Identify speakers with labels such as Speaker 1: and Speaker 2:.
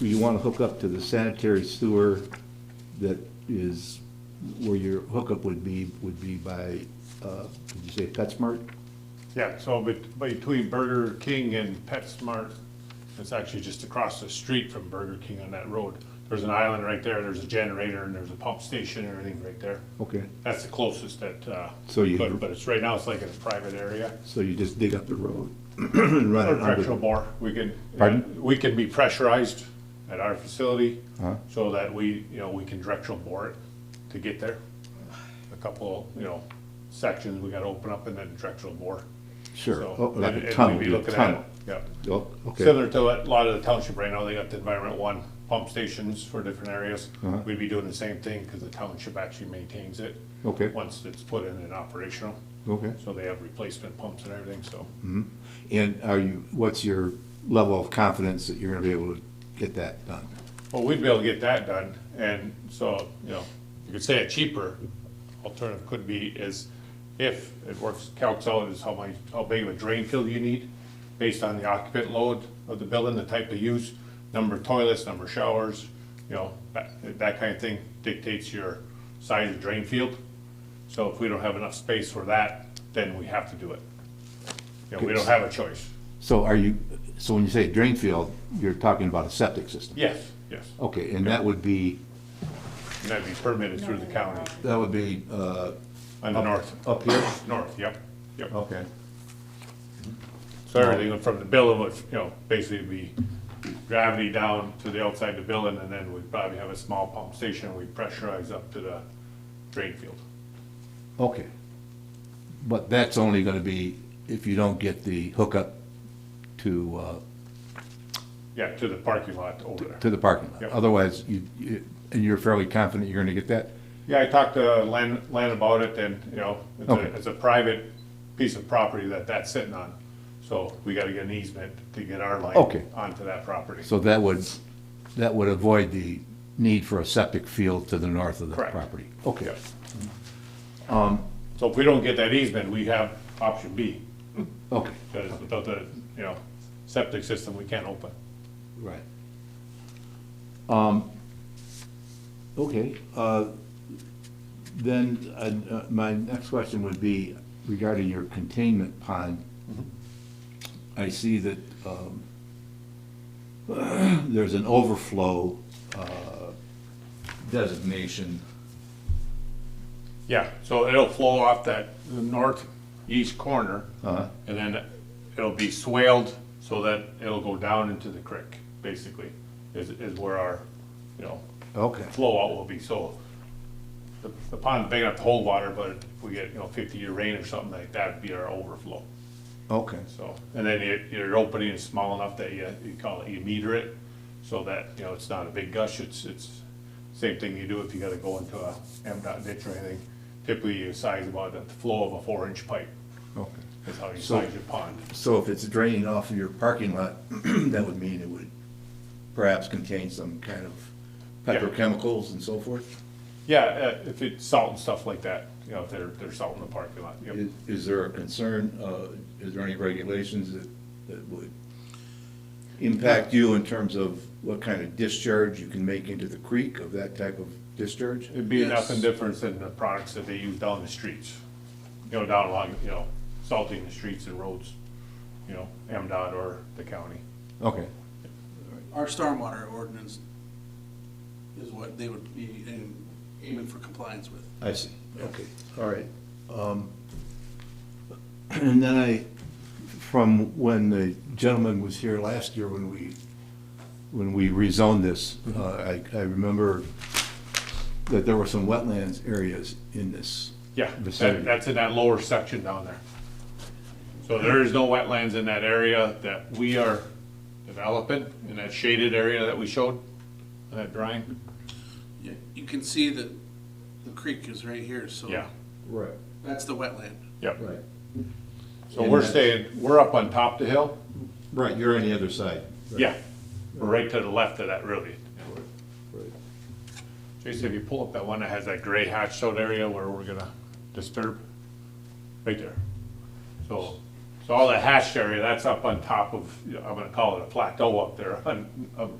Speaker 1: you want to hook up to the sanitary sewer that is, where your hookup would be, would be by, uh, did you say PetSmart?
Speaker 2: Yeah, so bet- between Burger King and PetSmart, it's actually just across the street from Burger King on that road. There's an island right there, there's a generator, and there's a pump station and everything right there.
Speaker 1: Okay,
Speaker 2: That's the closest that, uh,
Speaker 1: So you-
Speaker 2: but, but it's, right now, it's like in a private area.
Speaker 1: so you just dig up the road and run it
Speaker 2: Or
Speaker 1: under.
Speaker 2: directional bore, we can,
Speaker 1: Pardon?
Speaker 2: we can be pressurized at our facility,
Speaker 1: Uh-huh.
Speaker 2: so that we, you know, we can directional bore it to get there. A couple, you know, sections we gotta open up and then directional bore.
Speaker 1: Sure,
Speaker 2: So,
Speaker 1: Oh, like
Speaker 2: and-
Speaker 1: a
Speaker 2: and
Speaker 1: tunnel,
Speaker 2: we'd be
Speaker 1: yeah,
Speaker 2: looking at
Speaker 1: tunnel.
Speaker 2: it, Yeah.
Speaker 1: Oh, Okay,
Speaker 2: Similar to what a lot of the township right now, they got the environment one pump stations for different areas.
Speaker 1: Uh-huh.
Speaker 2: We'd be doing the same thing because the township actually maintains it.
Speaker 1: Okay.
Speaker 2: Once it's put in and operational.
Speaker 1: okay.
Speaker 2: So they have replacement pumps and everything, so.
Speaker 1: And are you, what's your level of confidence that you're going to be able to get that done?
Speaker 2: Well, we'd be able to get that done, and so, you know, you could say a cheaper alternative could be is if it works, calcs out is how much, how big of a drain field you need based on the occupant load of the building, the type of use, number of toilets, number of showers, you know, that, that kind of thing dictates your size of drain field. So if we don't have enough space for that, then we have to do it. You know, we don't have a choice.
Speaker 1: So are you, so when you say drain field, you're talking about a septic system?
Speaker 2: Yes, yes,
Speaker 1: Okay, and that would be,
Speaker 2: and that'd be permitted through the county
Speaker 1: that would be uh,
Speaker 2: on the north.
Speaker 1: up here?
Speaker 2: North, yep, yep.
Speaker 1: Okay.
Speaker 2: So everything from the building would, you know, basically be gravity down to the outside of the building, and then we'd probably have a small pump station, we pressurize up to the drain field.
Speaker 1: Okay. But that's only gonna be if you don't get the hookup to, uh,
Speaker 2: Yeah, to the parking lot over there.
Speaker 1: to the parking lot.
Speaker 2: Yep.
Speaker 1: Otherwise, you, you- and you're fairly confident you're gonna get that?
Speaker 2: Yeah, I talked to Len, Len about it, and, you know, it's a,
Speaker 1: Okay.
Speaker 2: it's a private piece of property that that's sitting on. So we gotta get an easement to get our line
Speaker 1: Okay.
Speaker 2: onto that property.
Speaker 1: So that would, that would avoid the need for a septic field to the north of the
Speaker 2: Correct.
Speaker 1: property? Okay.
Speaker 2: Yep. So if we don't get that easement, we have option B,
Speaker 1: Okay,
Speaker 2: because without the, you know, septic system, we can't open.
Speaker 1: right. Um, okay, uh, then, uh, uh, my next question would be regarding your containment pond. I see that, um, there's an overflow, uh, designation.
Speaker 2: Yeah, so it'll flow off that northeast corner, and then it'll be swaled so that it'll go down into the creek, basically, is, is where our, you know,
Speaker 1: Okay.
Speaker 2: flow out will be, so the the pond's big enough to hold water, but if we get, you know, fifty-year rain or something like that, it'd be our overflow,
Speaker 1: Okay,
Speaker 2: so. And then your, your opening is small enough that you, you call it, you meter it, so that, you know, it's not a big gush, it's, it's same thing you do if you gotta go into a M dot ditch or anything. Typically, you size about the flow of a four-inch pipe,
Speaker 1: okay.
Speaker 2: is how you
Speaker 1: So-
Speaker 2: size your pond.
Speaker 1: So if it's draining off of your parking lot, that would mean it would perhaps contain some kind of
Speaker 2: Yeah.
Speaker 1: petrochemicals and so forth?
Speaker 2: Yeah, uh, if it's salt and stuff like that, you know, if they're, they're salting the parking lot, yep.
Speaker 1: Is, is there a concern, uh, is there any regulations that, that would impact you in terms of what kind of discharge you can make into the creek of that type of discharge?
Speaker 2: It'd be nothing
Speaker 3: Yes.
Speaker 2: different than the products that they use down the streets, you know, down along, you know, salting the streets and roads, you know, M dot or the county.
Speaker 1: Okay,
Speaker 3: Our stormwater ordinance is what they would be aim- aiming for compliance with.
Speaker 1: I see, okay, all right. Um, And then I, from when the gentleman was here last year, when we, when we rezoned this, uh, I, I remember that there were some wetlands areas in this
Speaker 2: Yeah, that,
Speaker 1: vicinity.
Speaker 2: that's in that lower section down there. So there is no wetlands in that area that we are developing, in that shaded area that we showed, in that drawing.
Speaker 3: You you can see that the creek is right here, so.
Speaker 2: Yeah,
Speaker 1: Right,
Speaker 3: That's the wetland.
Speaker 2: yep.
Speaker 1: right.
Speaker 2: So
Speaker 1: And
Speaker 2: we're
Speaker 1: that's-
Speaker 2: staying, we're up on top of the hill.
Speaker 1: Right, you're on the other side.
Speaker 2: Yeah, we're right to the left of that really.
Speaker 1: Right.
Speaker 2: Jason, if you pull up that one that has that gray hatched out area where we're gonna disturb, right there. So, so all that hatched area, that's up on top of, I'm gonna call it a plateau up there on, up-